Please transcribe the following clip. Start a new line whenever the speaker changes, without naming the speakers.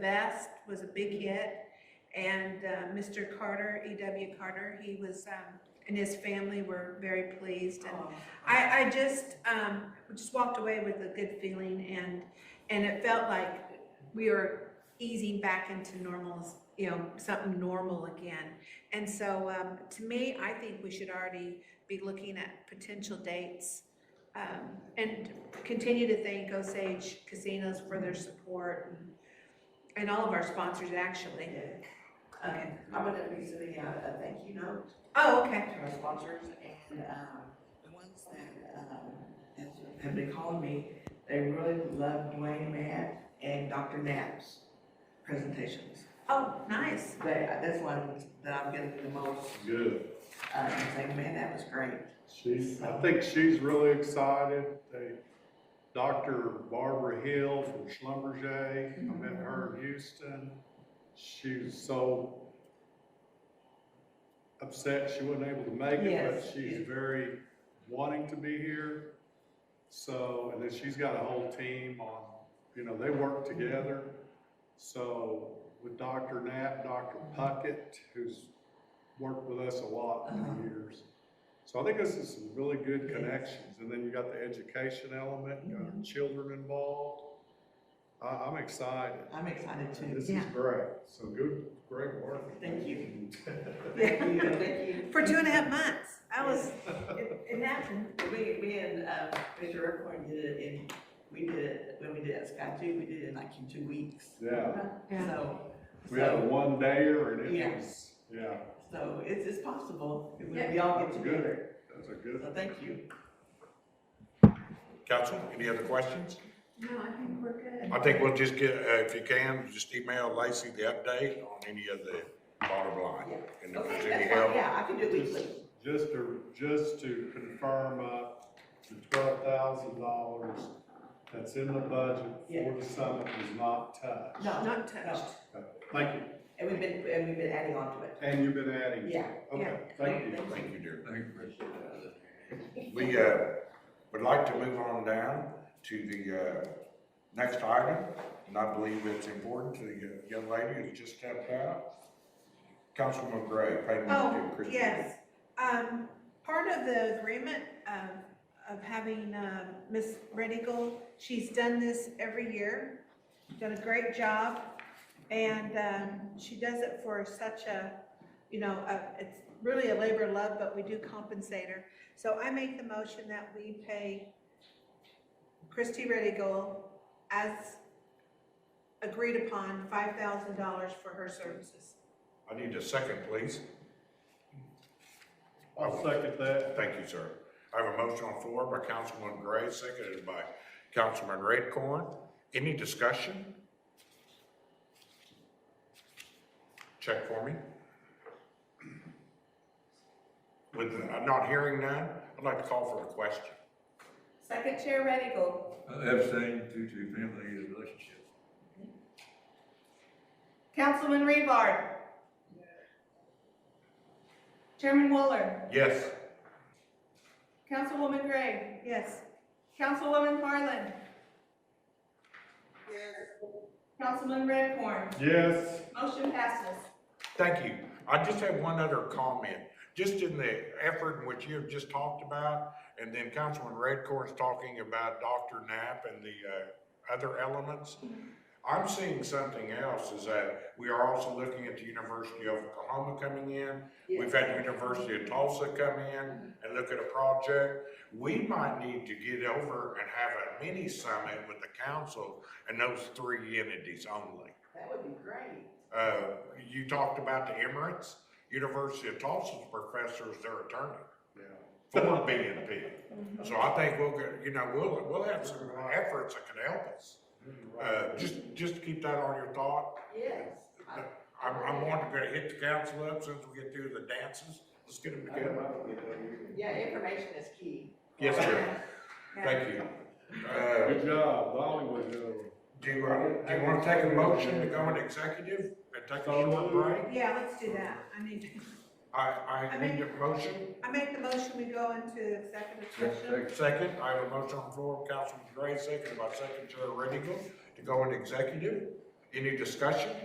Best was a big hit. And uh, Mr. Carter, E.W. Carter, he was, um, and his family were very pleased. And I, I just, um, just walked away with a good feeling and, and it felt like we were easing back into normal, you know, something normal again. And so, um, to me, I think we should already be looking at potential dates. Um, and continue to thank Osage Casinos for their support and- and all of our sponsors actually.
Um,
Okay.
I'm gonna be sending out a thank you note
Oh, okay.
to our sponsors and, um, the ones that, um, has- have been calling me, they really love Dwayne Matt and Dr. Knapp's presentations.
Oh, nice.
They, that's one that I'm getting the most,
Good.
uh, and saying, man, that was great.
She's, I think she's really excited. They, Dr. Barbara Hill from Schlumberger, I met
Mm-hmm.
her in Houston. She was so upset she wasn't able to make it, but
Yes.
she's very wanting to be here. So, and then she's got a whole team on, you know, they work
Mm-hmm.
together. So with Dr. Knapp, Dr. Puckett, who's worked with us a lot
Uh-huh.
for years. So I think this is some really good
Yes.
connections, and then you got the education element, you got our children involved. I, I'm excited.
I'm excited too.
This is great, so good, great work.
Thank you.
Yeah.
Thank you, thank you.
For two and a half months. I was, it, it happened.
We, we and, um, Mr. Airport did it in, we did it, when we did it at Sky Two, we did it in like in two weeks.
Yeah,
Yeah.
So.
we had a
so-
one dayer and it
Yeah.
was, yeah,
So it's, it's possible
Yeah.
when we all get
Good.
together.
that's a good.
So thank you.
Council, any other questions?
No, I think we're good.
I think we'll just get, uh, if you can, just email Lacey the update on any of the bottom line. And if there's
Okay,
any
that's fine.
help,
Yeah, I can do it weekly.
Just to, just to confirm up, the twelve thousand dollars that's in the budget for
Yeah.
the summit was not touched.
No,
Not
no.
touched.
Thank you,
And we've been, and we've been adding on to it.
and you've been adding.
Yeah.
Okay, thank you.
thank you, dear. We, uh, would like to move on down to the, uh, next item, and I believe it's important to the uh, young lady who just stepped out. Councilman Gray, payment
Oh,
to Christian.
yes. Um, part of the agreement, um, of having, um, Ms. Red Eagle, she's done this every year, done a great job. And, um, she does it for such a, you know, a- it's really a labor of love, but we do compensate her. So I make the motion that we pay Christy Red Eagle as agreed upon, five thousand dollars for her services.
I need a second, please.
I'll second that.
Thank you, sir. I have a motion on the floor by Councilman Gray, seconded by Councilman Redcorn. Any discussion? Check for me. With, I'm not hearing none, I'd like to call for a question.
Second Chair Red Eagle.
abstain due to family relationship.
Councilman Rebar. Chairman Waller.
Yes,
Councilwoman Gray.
Yes.
Councilwoman Harlan. Councilman Redcorn.
Yes.
Motion passes.
thank you. I just have one other comment. Just in the effort in which you have just talked about, and then Councilman Redcorn's talking about Dr. Knapp and the, uh, other elements. I'm seeing something else is that we are also looking at the University of Oklahoma coming in. We've had the University of Tulsa come in and look at a project. We might need to get over and have a mini summit with the council and those three entities only.
That would be great.
Uh, you talked about the Emirates, University of Tulsa's professor is their attorney
Yeah.
for BNP. So I think we'll, get- you know, we'll, we'll have some efforts that can help us. Uh, just, just keep that on your thought.
Yes. I-
I'm, I'm wanting to hit the council up since we get through the dances. Let's get them together.
Yeah, information is key.
Yes, sir. Thank you. Uh,
Good job, Hollywood.
do you, uh, do you want to take a motion to go into executive and take a short break?
Yeah, let's do that. I need,
I, I need a motion.
I make the motion, we go into executive session.
Second, I have a motion on the floor, Councilman Gray, second by Second Chair Reddick, to go into executive. Any discussion?